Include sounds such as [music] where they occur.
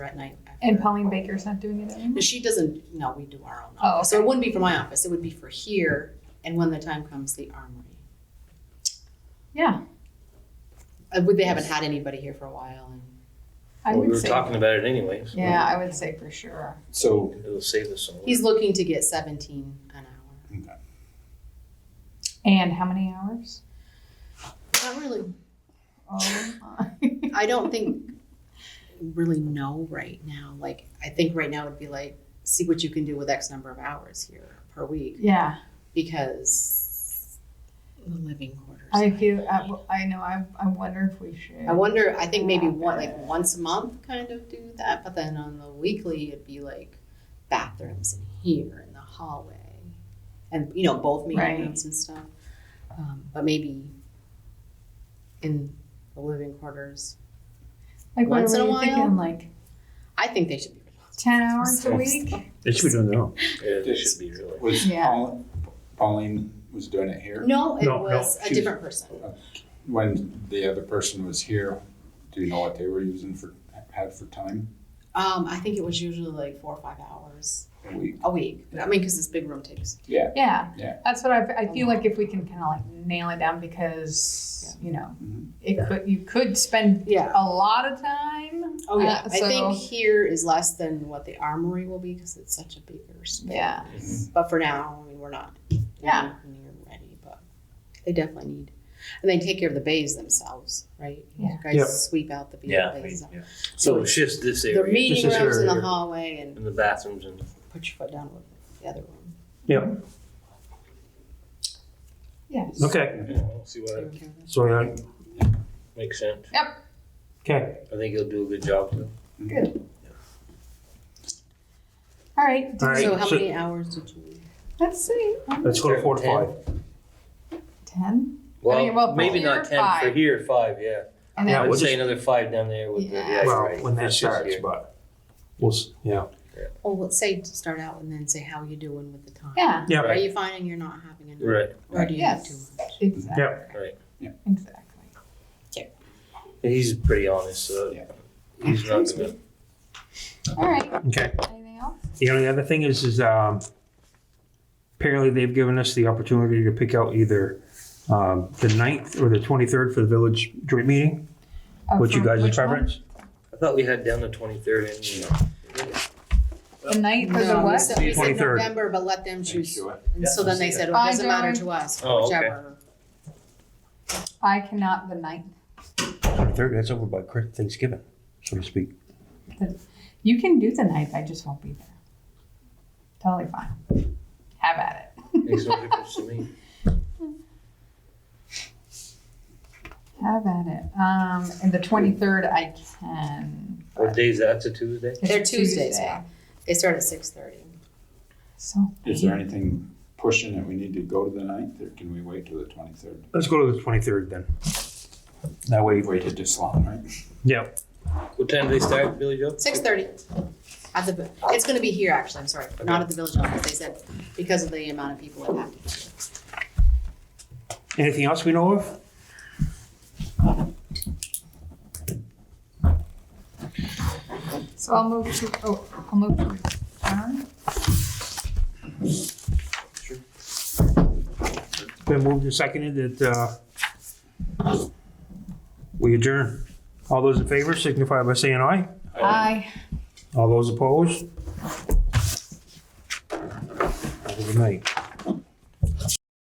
at night. after. And Pauline Baker's not doing it anymore? And she doesn't, no, we do our own Oh, office. So it okay. wouldn't be for my office, it would be for here, and when the time comes, the armory. Yeah, Uh, Would, they haven't had anybody here for a while, and I Well, we would were say, talking about it anyways. yeah, I would say for sure. So, It'll save us some work. he's looking to get seventeen an hour. And how many hours? Not really, Oh, my. I don't think, [laughs] really know right now, like, I think right now it'd be like, see what you can do with X number of hours here per week, [laughs] Yeah, because the living quarters. I feel, I, I know, I, I wonder if we should. I wonder, I think maybe one, like once a month kind of do that, but then on the weekly, it'd be like bathrooms in here in the hallway. And, you know, both meeting Right. rooms and stuff. Um, but maybe in the living quarters. Like, what once in are a we while. thinking, like I think they should be. ten hours a week? They should be doing their own. Yeah, It should be really. was Yeah. Paul- Pauline was doing it here? No, it No, no, was a she's- different person. When the other person was here, do you know what they were using for, had for time Um, I think it was usually like four or five hours a week? a week. I mean, because this big room takes. Yeah. Yeah. That's what I, I feel like if we can kind of like nail it down because, you know, Mhm. it could, you could spend Yeah. a lot of time. Oh yeah. Uh, I think so- here is less than what the armory will be because it's such a bigger space. Yeah. But for now, I mean, we're not. Yeah. Near ready, but they definitely need, and they take care of the bays themselves, right? You Yeah. Guys Yep. sweep out the Yeah. bays. So it's just this The area meeting Just this rooms in the area. hallway, and and the bathrooms and put your foot down with the other room. Yes. Okay, Yeah, see what Take care of it. so that, makes sense. okay, I think he'll do a good job. though. All right. All right. So, how so- many hours did you? Let's see. let's go to four to five. Ten. I mean, well, Well, for maybe here, not ten for five. here. Five, yeah. And Yeah, then, I we'll would say just- another five down there with the. Yeah. Yeah, you're Well, right. when that It's just starts, here. but we'll, s- yeah. Oh, let's say to start out and then say how you doing with the time. yeah. Yeah, Are right. you finding you're not having enough, Right. or do you have too Yes. much? Exactly. Right. Yeah. Exactly. He's pretty honest, so Yeah. he's not gonna. All right. okay. Anything else? The only other thing is, is um, apparently they've given us the opportunity to pick out either um, the 9th or the 23rd for the village joint meeting, Uh, which you for guys' which one? preference. I thought we had down the [laughs] twenty-third and. The night for the No, we what? said, we said 23rd. November, but let them Thank choose. you. And so then they said, well, it doesn't matter to us, Oh, okay. whichever. I cannot the night. 23rd, that's over by Chris- Thanksgiving, so to speak. You can do the night. I just won't be there. Totally fine. Have at Makes no it. difference to me. Have at it. Um, and the twenty-third, I can. What day is that? It's a Tuesday? It's They're Tuesdays, yeah. They start at six thirty. So. Is there anything pushing that we need to go to the ninth, or can we wait till the twenty-third? Let's go to the 23rd then. That way, We've waited this long, right? yeah, What time do they start, Billy Joe? Six thirty. At the, it's gonna be here, actually, I'm sorry, not at the village office, they said, because of the amount of people that have to. be here. Anything else we know of? So I'll move to, oh, I'll move to adjourn. Been moved and seconded that uh, we adjourn. All those in favor signify by saying aye. Aye. All those opposed? Have a good night.